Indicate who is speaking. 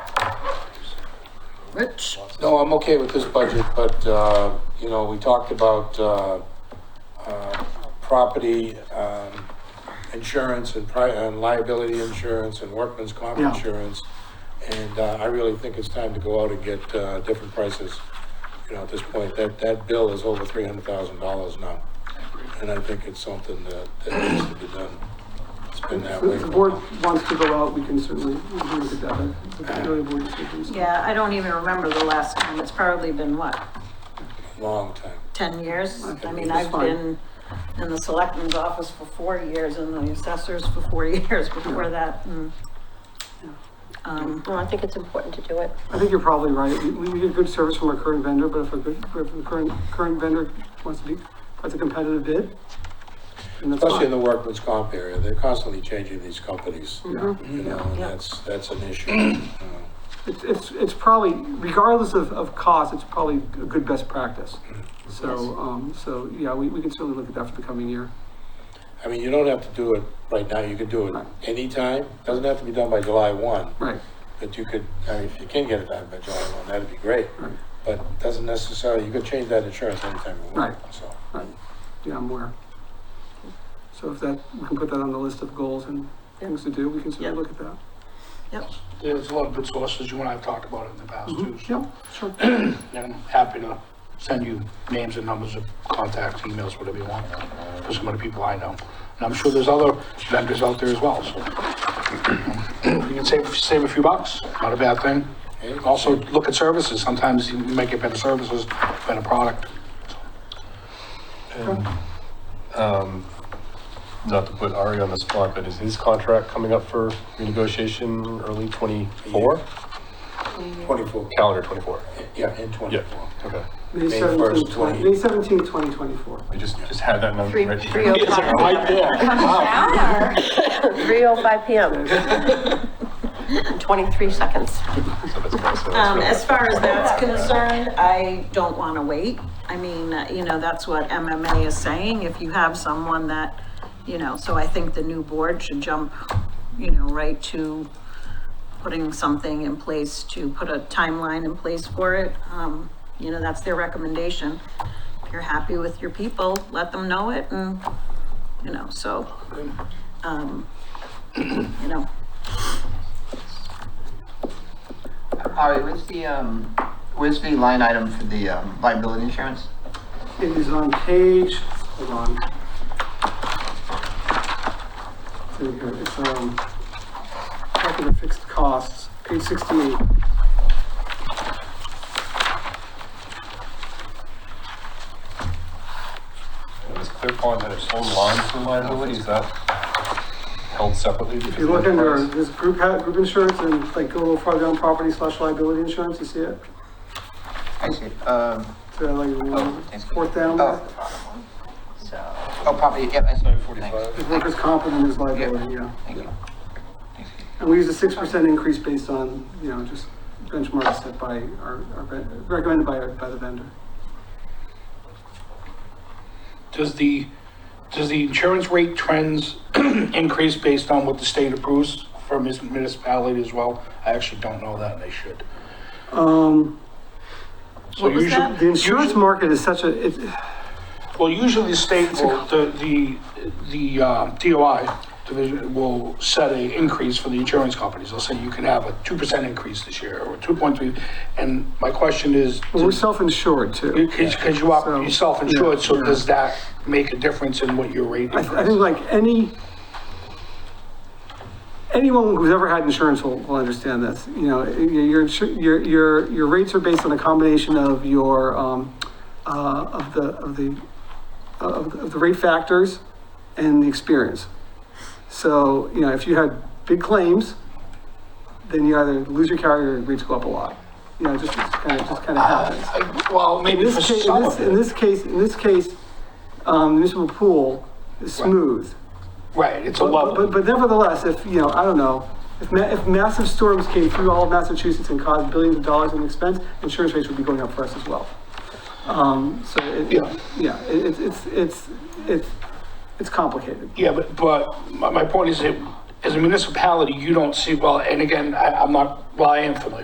Speaker 1: Rich?
Speaker 2: No, I'm okay with this budget, but, uh, you know, we talked about, uh, uh, property, um, insurance and pri, and liability insurance and workman's comp
Speaker 1: Yeah.
Speaker 2: insurance. And, uh, I really think it's time to go out and get, uh, different prices, you know, at this point. That, that bill is over three hundred thousand dollars now. And I think it's something that, that needs to be done. It's been that way.
Speaker 3: If the
Speaker 2: for a
Speaker 3: board
Speaker 2: while.
Speaker 3: wants to go out, we can certainly agree with that. It's really a board decision. so-
Speaker 4: Yeah, I don't even remember the last time. It's probably been what,
Speaker 2: Long time.
Speaker 4: ten years? I mean,
Speaker 3: That's
Speaker 4: I've
Speaker 3: fine.
Speaker 4: been in the selectman's office for four years and the assessors for four years before that. Mm. and, Um,
Speaker 5: No, I think it's important to do it.
Speaker 3: I think you're probably right. We, we get good service from our current vendor, but if a good, if a current, current vendor wants to be, puts a competitive bid, then that's
Speaker 2: Especially
Speaker 3: fine. Mm-hmm.
Speaker 2: in the workman's comp area, they're constantly changing these companies, you know,
Speaker 4: Mm-hmm.
Speaker 2: and that's, that's an issue. Uh, you know.
Speaker 3: It's, it's, it's probably, regardless of, of cost, it's probably a good best practice. So, um, so, yeah, we, we can certainly look at that for the coming year.
Speaker 2: I mean, you don't have to do it right now, you can do it anytime, doesn't have to be done by July one,
Speaker 3: Right,
Speaker 2: but you could, I mean, if you can get it done by July one, that'd be great.
Speaker 3: Right.
Speaker 2: But it doesn't necessarily, you could change that insurance anytime you want, so.
Speaker 3: right. Yeah, I'm aware. So if that, we can put that on the list of goals and things to do, we can certainly
Speaker 4: Yeah.
Speaker 3: look at that.
Speaker 6: There's a lot of good sources you and I have talked about it in the past too,
Speaker 3: Yeah, sure.
Speaker 6: and I'm happy to send you names and numbers of contacts, emails, whatever you want, for some of the people I know. And I'm sure there's other vendors out there as well, so. You can save, save a few bucks, not a bad thing. Also, look at services, sometimes you might get better services, better product.
Speaker 7: Um, not to put Ari on the spot, but is his contract coming up for renegotiation early twenty-four?
Speaker 2: Twenty-four,
Speaker 7: Calendar twenty-four,
Speaker 2: yeah, in
Speaker 7: yeah,
Speaker 2: twenty-four.
Speaker 7: okay.
Speaker 3: May
Speaker 2: May
Speaker 3: seventeenth,
Speaker 2: 1st,
Speaker 3: twenty,
Speaker 2: 20.
Speaker 3: May seventeenth, twenty twenty-four.
Speaker 7: I just, just had that number
Speaker 5: Three,
Speaker 7: right
Speaker 5: three
Speaker 7: here.
Speaker 5: oh five,
Speaker 2: Right there,
Speaker 5: three oh five PM. Twenty-three seconds.
Speaker 7: So that's nice. So that's
Speaker 4: um,
Speaker 7: really-
Speaker 4: as far as that's concerned, I don't want to wait. I mean, uh, you know, that's what MMA is saying. If you have someone that, you know, so I think the new board should jump, you know, right to putting something in place to put a timeline in place for it. Um, you know, that's their recommendation. If you're happy with your people, let them know it and, you know, so, um, you know,
Speaker 8: All right, where's the, um, where's the line item for the um, liability insurance?
Speaker 3: It is on page, hold on. There we go, it's, um, talking of fixed costs, page sixty-eight.
Speaker 7: Is Clear Pond had its own line for liability, is that held separately?
Speaker 3: If you look under, there's group, ha- group insurance and like go a little farther down, property slash liability insurance, you see it?
Speaker 8: I see, um,
Speaker 3: So like, you know,
Speaker 8: thank you.
Speaker 3: fourth down,
Speaker 8: oh,
Speaker 3: there's
Speaker 8: the bottom one. So, oh, property, yep, I saw it, thanks.
Speaker 3: workers' comp and then there's liability, yeah.
Speaker 8: Thank you.
Speaker 3: And we use a six percent increase based on, you know, just benchmarks set by our, our, ven- recommended by, our- by the vendor.
Speaker 6: Does the, does the insurance rate trends increase based on what the state approves for mis- municipality as well? I actually don't know that, and I should.
Speaker 3: Um,
Speaker 6: So
Speaker 4: what was
Speaker 6: usually-
Speaker 4: that?
Speaker 3: the insurance market is such a, it's,
Speaker 6: Well, usually the state will, the, the, the uh, DOI division will set a increase for the insurance companies. They'll say you can have a two percent increase this year, or two point three, and my question is,
Speaker 3: Well, We're self-insured too.
Speaker 6: because you are,
Speaker 3: So-
Speaker 6: you're self-insured, so
Speaker 3: Yeah.
Speaker 6: does that make a difference in what your rate
Speaker 3: I,
Speaker 6: is?
Speaker 3: th- I think like any, anyone who's ever had insurance will, will understand this. You know, your, your insu- your, your, your rates are based on a combination of your, um, uh, of the, of the, of, of the rate factors and the experience. So, you know, if you had big claims, then you either lose your carrier or your rates go up a lot. You know, it just, just kind of, just kind of happens.
Speaker 6: Uh, Well,
Speaker 3: In
Speaker 6: maybe for
Speaker 3: this case, in
Speaker 6: some
Speaker 3: this,
Speaker 6: of
Speaker 3: in
Speaker 6: it,
Speaker 3: this case, in this case, um, municipal pool is smooth.
Speaker 6: right, it's a
Speaker 3: But,
Speaker 6: level.
Speaker 3: but- but nevertheless, if, you know, I don't know, if ma- if massive storms came through all of Massachusetts and caused billions of dollars in expense, insurance rates would be going up for us as well. Um, so it,
Speaker 6: Yeah.
Speaker 3: yeah, it, it's, it's, it's, it's, it's complicated.
Speaker 6: Yeah, but, but my, my point is that as a municipality, you don't see, well, and again, I, I'm not, well, I am familiar